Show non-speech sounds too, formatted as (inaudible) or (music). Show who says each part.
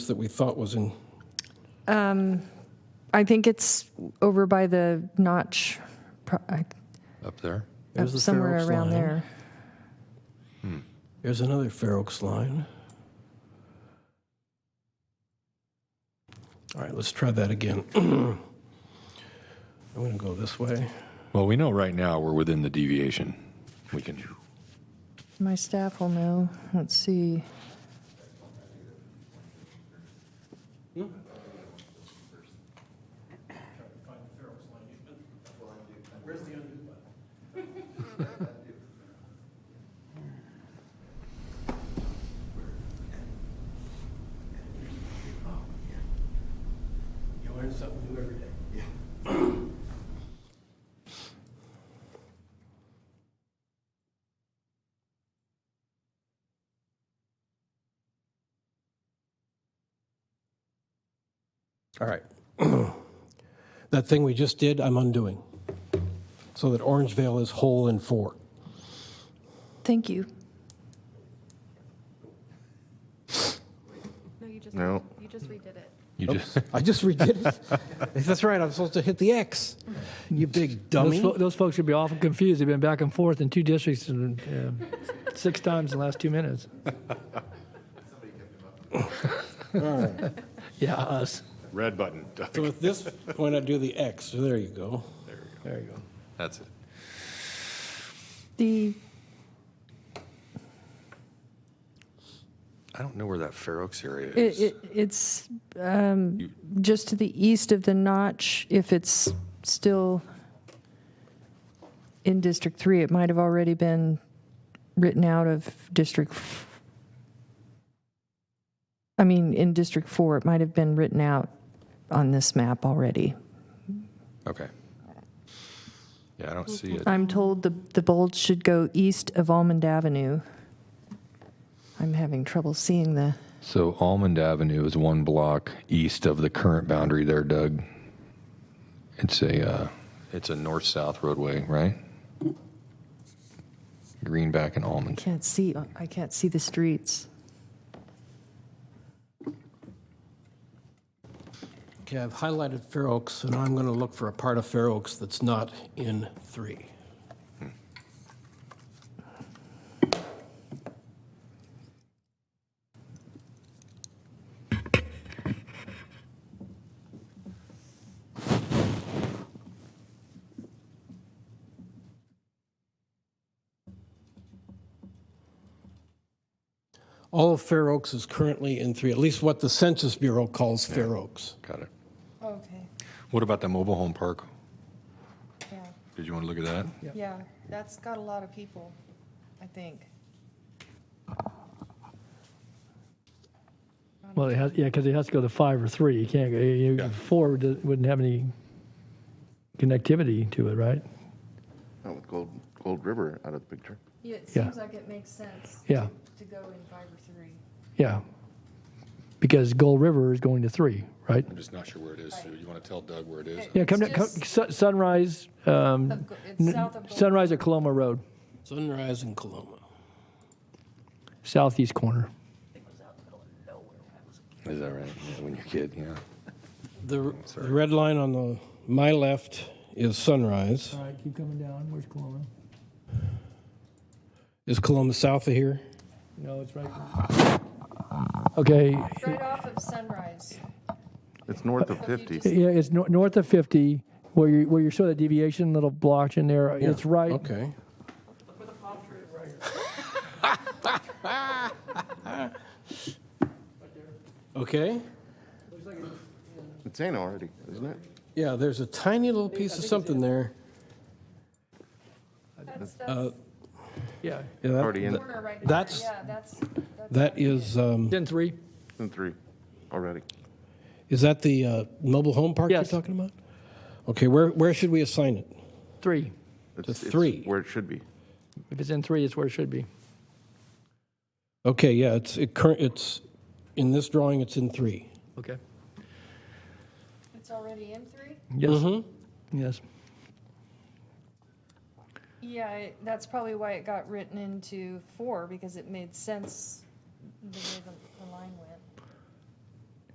Speaker 1: that we thought was in,
Speaker 2: I think it's over by the notch, pro- I-
Speaker 3: up there.
Speaker 1: There's the Fair
Speaker 2: somewhere
Speaker 1: Oaks
Speaker 2: around
Speaker 1: line.
Speaker 2: there.
Speaker 1: here's another Fair Oaks line. All right, let's try that again. (clears throat) I'm going to go this way.
Speaker 3: Well, we know right now we're within the deviation. We can.
Speaker 2: My staff will know. Let's see.
Speaker 1: You learn something new every day. All right. (clears throat) That thing we just did, I'm undoing. So that Orangevale is whole in four.
Speaker 2: Thank you.
Speaker 4: No, you just,
Speaker 5: No.
Speaker 4: you just redid it.
Speaker 3: You just. (laughs)
Speaker 1: I just redid it. (laughs) That's right, I'm supposed to hit the X. You big dummy.
Speaker 6: Those, fo- those folks should be awful confused. They've been back and forth in two districts and uh, six times in the last two minutes. (laughs) yeah, us.
Speaker 5: Red button.
Speaker 1: So at this point, I do the X. So there you go.
Speaker 6: There you go.
Speaker 3: That's it.
Speaker 2: The,
Speaker 3: I don't know where that Fair Oaks area
Speaker 2: it,
Speaker 3: is.
Speaker 2: it, it's um, just to the east of the notch, if it's still in District 3, it might have already been written out of District, f- I mean, in District 4, it might have been written out on this map already.
Speaker 3: okay. Yeah, I don't see it.
Speaker 2: I'm told the, the bulge should go east of Almond Avenue. I'm having trouble seeing the,
Speaker 3: So Almond Avenue is one block east of the current boundary there, Doug. It's a uh, it's a north south roadway, right? Greenback and Almond.
Speaker 2: can't see, I can't see the streets.
Speaker 1: Okay, I've highlighted Fair Oaks, and I'm going to look for a part of Fair Oaks that's not in three. All of Fair Oaks is currently in three, at least what the Census Bureau calls Fair Oaks.
Speaker 3: Got it.
Speaker 7: Okay,
Speaker 3: What about the mobile home park?
Speaker 7: yeah,
Speaker 3: Did you want to look at that?
Speaker 7: yeah, that's got a lot of people, I think.
Speaker 6: Well, it has, yeah, because it has to go to five or three. You can't go, you, four d- wouldn't have any connectivity to it, right?
Speaker 5: Not with Gold, Gold River out of the picture.
Speaker 7: Yeah, it
Speaker 6: Yeah.
Speaker 7: seems like it makes sense
Speaker 6: Yeah,
Speaker 7: to go in five or three.
Speaker 6: yeah. Because Gold River is going to three, right?
Speaker 3: I'm just not sure where it is. So you want to tell Doug where it is?
Speaker 6: Yeah, come,
Speaker 7: It's
Speaker 6: down, come
Speaker 7: just-
Speaker 6: Sun- Sunrise, um,
Speaker 7: Of go- It's
Speaker 6: n-
Speaker 7: south of. Gold-
Speaker 6: Sunrise at Coloma Road,
Speaker 1: Sunrise in Coloma.
Speaker 6: southeast corner.
Speaker 3: Is that right? Yeah, when you're a kid, yeah.
Speaker 1: The, the red line on the, my left is Sunrise.
Speaker 6: All right, keep coming down. Where's Coloma?
Speaker 1: Is Coloma south of here?
Speaker 6: No, it's right. Okay,
Speaker 7: It's Right off of Sunrise.
Speaker 5: It's north of
Speaker 7: So if you
Speaker 5: 50.
Speaker 7: just-
Speaker 6: yeah, it's nor- north of 50, where you, where you saw that deviation, little blotch in there, it's right. (laughs)
Speaker 1: Okay. Okay,
Speaker 5: It's in already, isn't it?
Speaker 1: yeah, there's a tiny little piece of something there.
Speaker 7: That's, that's
Speaker 6: Yeah,
Speaker 1: Yeah, that-
Speaker 5: Already in,
Speaker 7: corner right there.
Speaker 1: That's-
Speaker 7: Yeah, that's, that's.
Speaker 1: That is, um,
Speaker 6: 10 3.
Speaker 5: it's in three already.
Speaker 1: is that the uh, mobile home park you're
Speaker 6: Yes.
Speaker 1: talking about? Okay, where, where should we assign it?
Speaker 6: 3.
Speaker 5: It's
Speaker 1: It's
Speaker 5: it's
Speaker 1: three.
Speaker 5: Where it should be.
Speaker 6: If it's in 3, it's where it should be.
Speaker 1: Okay, yeah, it's, it current, it's, in this drawing, it's in three.
Speaker 6: Okay.
Speaker 7: It's already in three?
Speaker 6: Yes. Yes.
Speaker 7: Yeah, it- that's probably why it got written into four, because it made sense the way the, the line went.